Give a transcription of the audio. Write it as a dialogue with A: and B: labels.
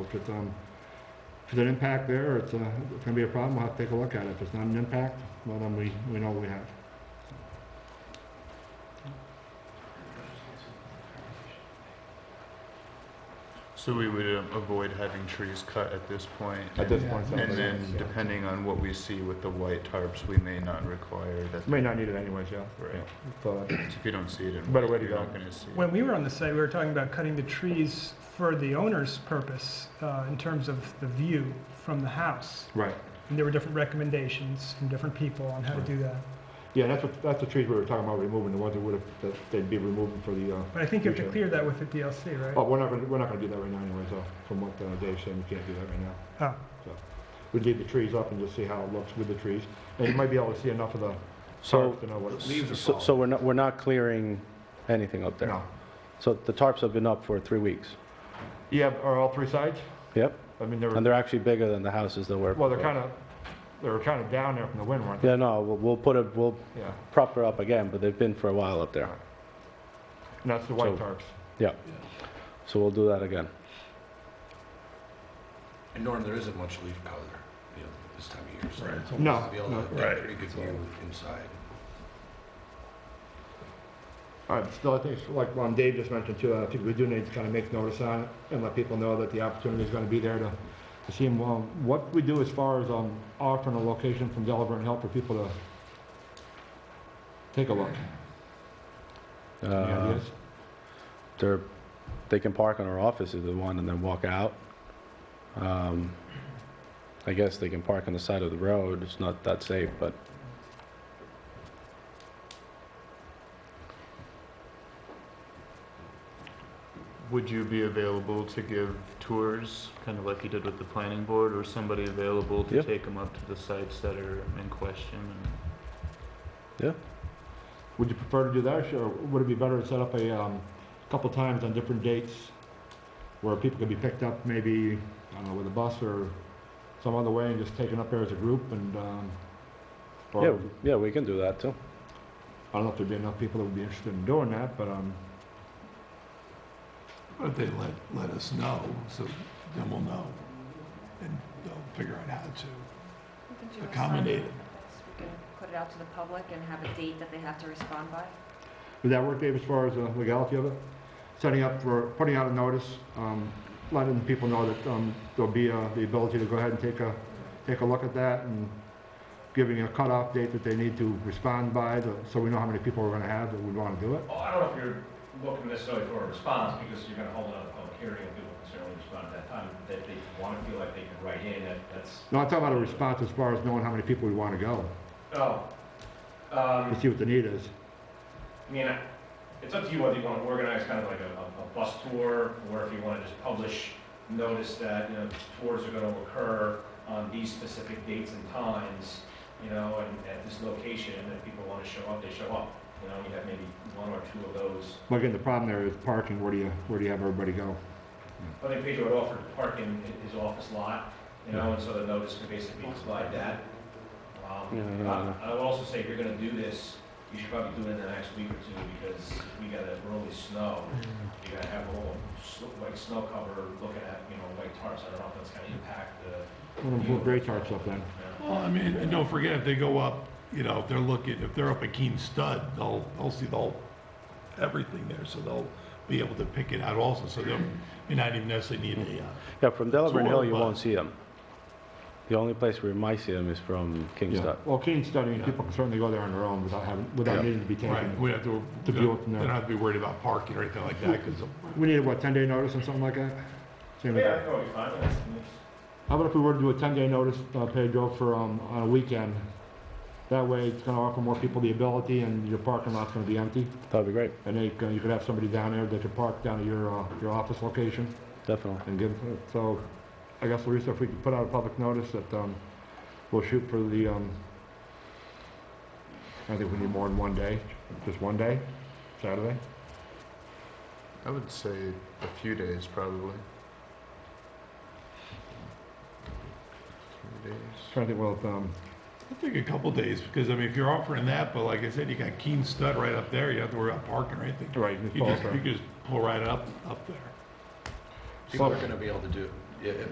A: If it's, um, if it's an impact there, or it's, uh, it's gonna be a problem, we'll have to take a look at it. If it's not an impact, well, then we, we know what we have.
B: So we would uh, avoid having trees cut at this point,
A: At
B: and-
A: this point, it sounds
B: And
A: like uh,
B: then
A: yes.
B: depending on what we see with the white tarps, we may not require that.
A: May not need it anyways, yeah.
B: Right.
A: So, uh,
B: If you don't see it in
A: Better way
B: white,
A: to
B: you're not
A: go.
B: gonna see it.
C: When we were on the site, we were talking about cutting the trees for the owner's purpose uh, in terms of the view from the house.
A: Right.
C: And there were different recommendations from different people on how to do that.
A: Yeah, that's what, that's the trees we were talking about removing, the ones that would have, that they'd be removing for the, uh,
C: But I think you have to clear that with the DLC,
A: oh,
C: right?
A: we're not gonna, we're not gonna do that right now anyway, so, from what uh, Dave said, we can't do that right now.
C: Oh,
A: We'd leave the trees up and just see how it looks with the trees. And you might be able to see enough of the
D: So,
A: tarp to know what it's.
E: Leaves are
D: so so we're not, we're not clearing anything up there?
A: No.
D: So the tarps have been up for three weeks?
A: Yeah, are all three sides?
D: Yep,
A: I mean, they're,
D: and they're actually bigger than the houses that were...
A: well, they're kind of, they're kind of down there from the wind, weren't they?
D: Yeah, no, we'll, we'll put it, we'll
A: Yeah.
D: prop her up again, but they've been for a while up there.
A: And that's the white
D: So-
A: tarps.
D: So we'll do that again.
E: And Norm, there isn't much leaf cover, you know, this time of year, so. it's
A: No,
E: almost- Be able to
A: no,
E: get
A: right.
E: a pretty good view inside.
A: All right, still, I think, it's like, um, Dave just mentioned too, I think we do need to kind of make notice on it and let people know that the opportunity is gonna be there to, to see them. Um, what we do as far as, um, offering a location from Delaware and help for people to take a look. Any
D: Uh,
A: ideas?
D: They're, they can park in our office if they want and then walk out. Um, I guess they can park on the side of the road, it's not that safe, but
B: Would you be available to give tours, kind of like you did with the planning board, or somebody available to
D: Yep.
B: take them up to the sites that are in question? and-
A: Would you prefer to do that, or would it be better to set up a, um, couple times on different dates where people could be picked up maybe, I don't know, with a bus or some other way and just taken up there as a group and, um, or-
D: yeah, yeah, we can do that too.
A: I don't know if there'd be enough people that would be interested in doing that, but, um,
F: But they let, let us know, so then we'll know, and they'll figure out how to.
G: We can do a
F: Accommodate
G: sign
F: it.
G: that's- We can put it out to the public and have a date that they have to respond by.
A: would that work, Dave, as far as the legality of it? Setting up for, putting out a notice, um, letting people know that, um, there'll be, uh, the ability to go ahead and take a, take a look at that and giving a cutoff date that they need to respond by, to- so we know how many people we're gonna have that would wanna do it.
H: Well, I don't know if you're looking necessarily for a response, because you're gonna hold another public hearing, and people can certainly respond at that time, that they wanna feel like they can write in, that, that's,
A: No, I'm talking about a response as far as knowing how many people would wanna go,
H: oh.
A: to
H: Um,
A: see what the need is.
H: I mean, I- it's up to you whether you wanna organize kind of like a, a- a bus tour, or if you wanna just publish notice that, you know, tours are gonna occur on these specific dates and times, you know, and at this location, and if people wanna show up, they show up. You know, you have maybe one or two of those
A: But again, the problem there is parking, where do you, where do you have everybody go?
H: I think Pedro had offered to park in hi- his office lot, you know, and so the notice could basically slide that. Um,
D: Yeah, no, no.
H: I I would also say, if you're gonna do this, you should probably do it in the next week or two, because we got a really snow. You're gonna have a whole, sl- like, snow cover, looking at, you know, white tarps, I don't know if that's gonna impact the,
A: Well, then put great charts up then.
H: you know.
F: Well, I mean, and don't forget, if they go up, you know, if they're looking, if they're up at Keen Stud, they'll, they'll see the whole, everything there, so they'll be able to pick it out also, so they'll, may not even necessarily need a, uh,
D: Yeah, from Delaware
F: Tour
D: Hill, you
F: bus.
D: won't see them. The only place where you might see them is from
A: Yeah,
D: Kingstown.
A: well, Keene studying, people can certainly go there on their own without having, without
F: Yeah.
A: needing to be taken.
F: right, we have to,
A: To
F: they
A: be open
F: don't
A: there.
F: have to be worried about parking or anything like that, because
A: We need a, what, 10-day notice or something like that? Same with
H: Yeah, I
A: that.
H: think it'll be fine, that's-
A: How about if we were to do a 10-day notice, uh, Pedro, for, um, on a weekend? That way, it's gonna offer more people the ability, and your parking lot's gonna be empty,
D: That'd be great,
A: and they, can- you could have somebody down there that could park down at your, uh, your office location,
D: definitely.
A: and give, so, I guess, Larissa, if we could put out a public notice that, um, we'll shoot for the, um, I think we need more than one day, just one day, Saturday?
B: I would say a few days, probably. Three days.
A: Trying to think, well, if, um,
F: I think a couple days, because I mean, if you're offering that, but like I said, you got Keen Stud right up there, you don't have to worry about parking or anything.
A: right,
F: You
A: Ms.
F: just, you
A: Balter.
F: just pull right up, up there.
E: People
A: So-
E: are gonna be able to do, yeah, it-